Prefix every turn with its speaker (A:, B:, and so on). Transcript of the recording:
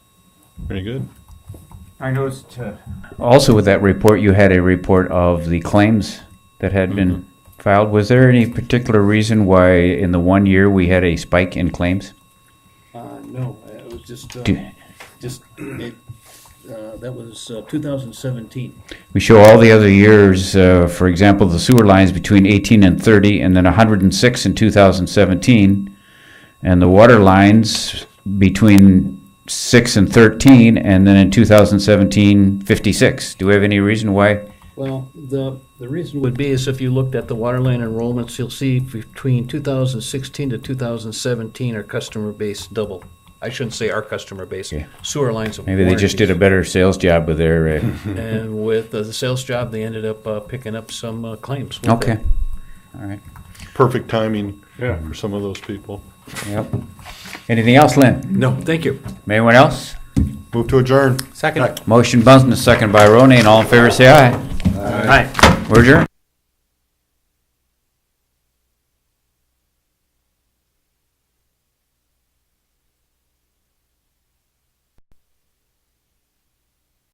A: Very good.
B: I noticed, uh,
C: Also with that report, you had a report of the claims that had been filed. Was there any particular reason why in the one year we had a spike in claims?
D: Uh, no, it was just, uh,
C: Do-
D: just, it, uh, that was uh, 2017.
C: We show all the other years, uh, for example, the sewer lines between 18 and 30, and then 106 in 2017, and the water lines between 6 and 13, and then in 2017, 56. Do we have any reason why?
D: Well, the, the reason would be is if you looked at the waterline enrollments, you'll see between 2016 to 2017, our customer base doubled. I shouldn't say our customer base,
C: Yeah.
D: sewer lines of.
C: Maybe they just did a better sales job with their. Uh,
D: And with uh, the sales job, they ended up uh, picking up some uh, claims. with
C: okay.
D: it.
C: All right.
A: Perfect timing
B: yeah,
A: for some of those people.
C: Yep. Anything else, Lynn?
D: No, thank you.
C: Anyone else?
A: Move to adjourn.
E: Second.
C: Motion Bunsen, second by Roney, and all in favor say aye.
E: Aye.
C: We're adjourned.